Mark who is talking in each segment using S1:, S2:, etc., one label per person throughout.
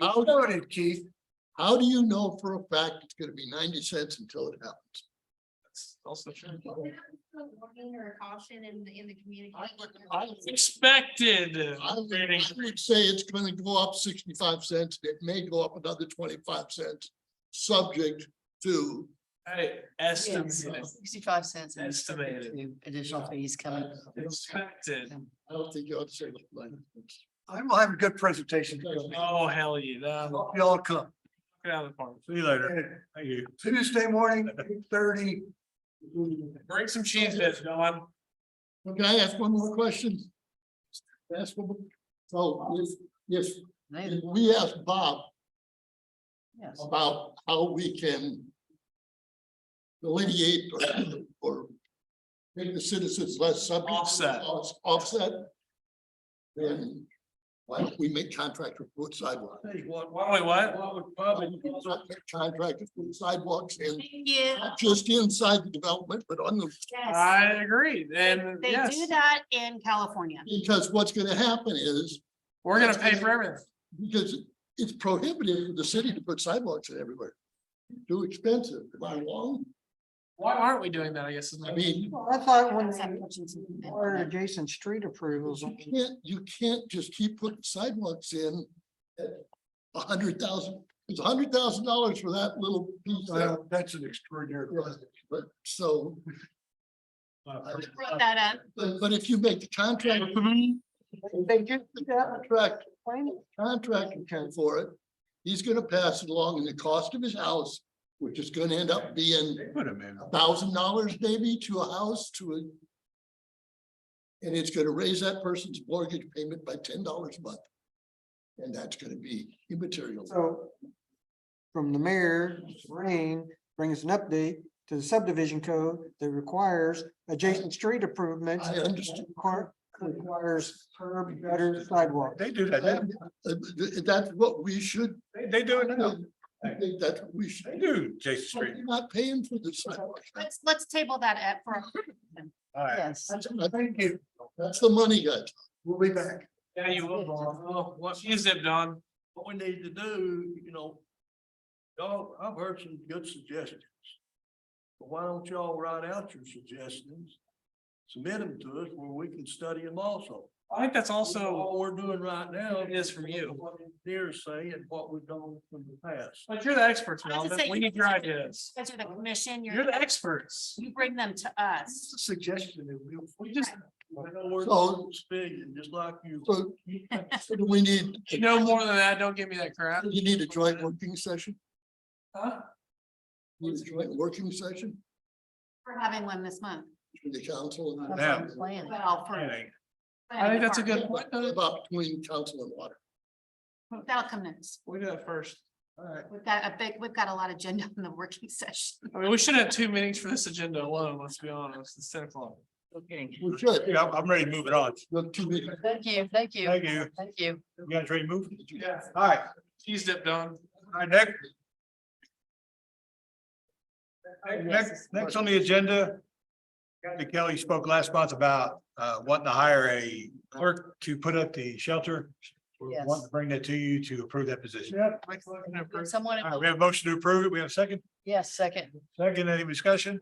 S1: How-
S2: You started, Keith.
S1: How do you know for a fact it's gonna be ninety cents until it happens?
S2: That's Also true.
S3: Wasn't that a Warning or a caution in the, in the communication.
S1: I would- I would-
S4: Expected.
S1: I would- I would say it's gonna go up sixty-five cents, it may go up another twenty-five cents, subject to.
S4: Right,
S5: Yeah,
S4: Estimated.
S5: Sixty-five cents. and
S4: Estimated.
S5: subject to Additional
S1: Yeah.
S5: fees coming.
S4: Expected.
S1: I don't think you ought to say that. like-
S2: I will have a good presentation.
S4: Oh, hell yeah. that- knock
S2: Y'all come.
S4: it out of the park.
S6: See you later. Thank you.
S2: Tuesday morning, eight thirty.
S4: Bring some cheese dip, Don.
S1: Well, Can I ask one more question? Ask one, more. so if, if,
S5: They-
S1: if we ask Bob
S5: Yes,
S1: about how we can delineate or- or make the citizens less subject. to
S4: Offset.
S1: off- Offset. Then why don't we make contractors put sidewalks?
S4: Why don't we what?
S1: Why would public Contractors put sidewalks and
S3: Yeah,
S1: not just inside the development, but on the,
S3: yes.
S4: I agree. And
S3: They do
S4: yes,
S3: that in California.
S1: because what's gonna happen is
S4: we're gonna pay for everything.
S1: Because it's prohibitive for the city to put sidewalks in everywhere. Too expensive, am I wrong?
S4: Why aren't we doing that? I guess. is my-
S1: I mean,
S5: well, I thought when
S3: Some
S5: they
S3: kitchens have been-
S5: required adjacent street approvals,
S1: you can't, you can't just keep putting sidewalks in. at A hundred thousand, it's a hundred thousand dollars for that little piece. there.
S2: Well, that's an extraordinary.
S1: But so,
S3: We brought that up.
S1: but, but if you make the contract,
S5: they do
S1: the
S5: that,
S1: contract,
S5: planning
S1: contractor can for it. He's gonna pass it along in the cost of his house, which is gonna end up being
S6: They Put him in.
S1: thousand dollars maybe to a house to a. And it's gonna raise that person's mortgage payment by ten dollars a month. And that's gonna be immaterial.
S7: So from the mayor, Rain, bring us an update to the subdivision code that requires adjacent street improvements.
S1: I understand.
S7: Require- Requires curb, gutter, sidewalk.
S6: They do that.
S1: That-
S6: They-
S1: uh, That's what we should.
S6: They, they do it now.
S1: I think that's what we should.
S6: They do, Jason Street.
S1: You're not paying for the sidewalk.
S3: Let's, let's table that up for.
S6: All right.
S5: yes.
S1: Thank you. That's the money, guys.
S2: We'll be back.
S4: Yeah, you will, Don. Oh, What cheese dip, Don?
S8: what we need to do, you know. Y'all, I've heard some good suggestions. But why don't y'all write out your suggestions? Submit them to us where we can study them also.
S4: I think that's also,
S8: All we're doing right now.
S4: It is from you.
S8: What engineers say and what we've done from the past.
S4: but you're the experts,
S3: I was gonna
S4: Melvin.
S3: say,
S4: We
S3: you
S4: need your
S3: guys are the-
S4: ideas.
S3: You guys are the commission,
S4: You're
S3: you're,
S4: the experts.
S3: you bring them to
S2: It's
S3: us.
S2: a Suggestion that we'll.
S4: We just,
S8: I know we're
S1: So-
S8: speaking, just like you.
S1: So so do we need,
S4: you know more than that. Don't give me that crap.
S1: you need a joint working session?
S4: Huh?
S1: Need a joint working session
S3: We're having one this month.
S1: between the council and.
S5: That's on plan.
S3: Well, for.
S6: Planning.
S4: I think that's a good point.
S1: What About between council and water.
S3: That'll come next.
S4: We do that first. All right.
S3: We've got a big, we've got a lot of agenda in the working session.
S4: I mean, we should have two meetings for this agenda alone, let's be honest, it's ten o'clock.
S1: We should.
S6: Yeah, I'm- I'm ready to move it on.
S1: Look, two meetings.
S5: Thank you, thank you.
S6: Thank you.
S5: Thank you.
S6: You guys ready to move?
S4: Yeah.
S6: All right,
S4: Cheese dip done.
S6: all right, next. Next, next on the agenda. Kathy Kelly spoke last month about uh wanting to hire a clerk to put up the shelter. We
S5: Yes.
S6: want to bring that to you to approve that position.
S5: Would Someone,
S6: All right, we have a motion to approve it. We have a second,
S5: yes, second.
S6: second, any discussion?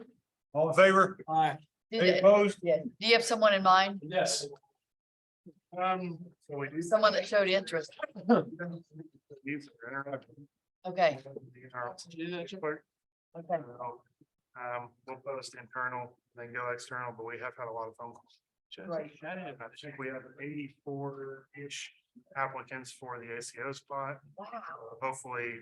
S6: All in favor?
S4: Aye.
S5: Do
S6: Any
S5: they-
S6: opposed?
S5: yeah. Do you have someone in mind?
S4: Yes. Um. so we do-
S5: Someone that showed interest? Okay, okay.
S9: Um, we'll post internal, then go external, but we have had a lot of phone calls.
S5: Right.
S9: I think we have eighty-four-ish applicants for the ACO spot.
S5: Wow.
S9: Uh, Hopefully,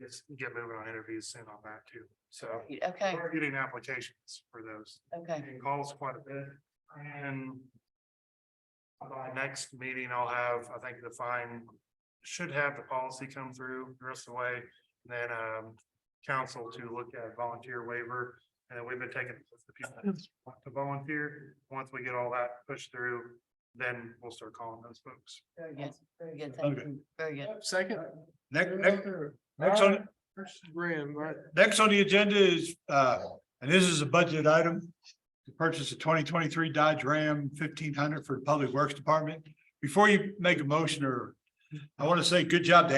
S9: just get moving on interviews soon on that too. So
S5: Okay,
S9: we're getting applications for those
S5: okay.
S9: and calls quite a bit and by next meeting, I'll have, I think the fine should have the policy come through the rest of the way. and Then um council to look at volunteer waiver and then we've been taking the people that want to volunteer. Once we get all that pushed through, then we'll start calling those folks.
S5: Very good, very good, thank you, very good.
S4: Second.
S6: Next, next, next on,
S4: First, Graham, right?
S6: Next on the agenda is, uh, and this is a budget item. To purchase a twenty twenty-three Dodge Ram fifteen hundred for the Public Works Department. Before you make a motion or, I want to say good job to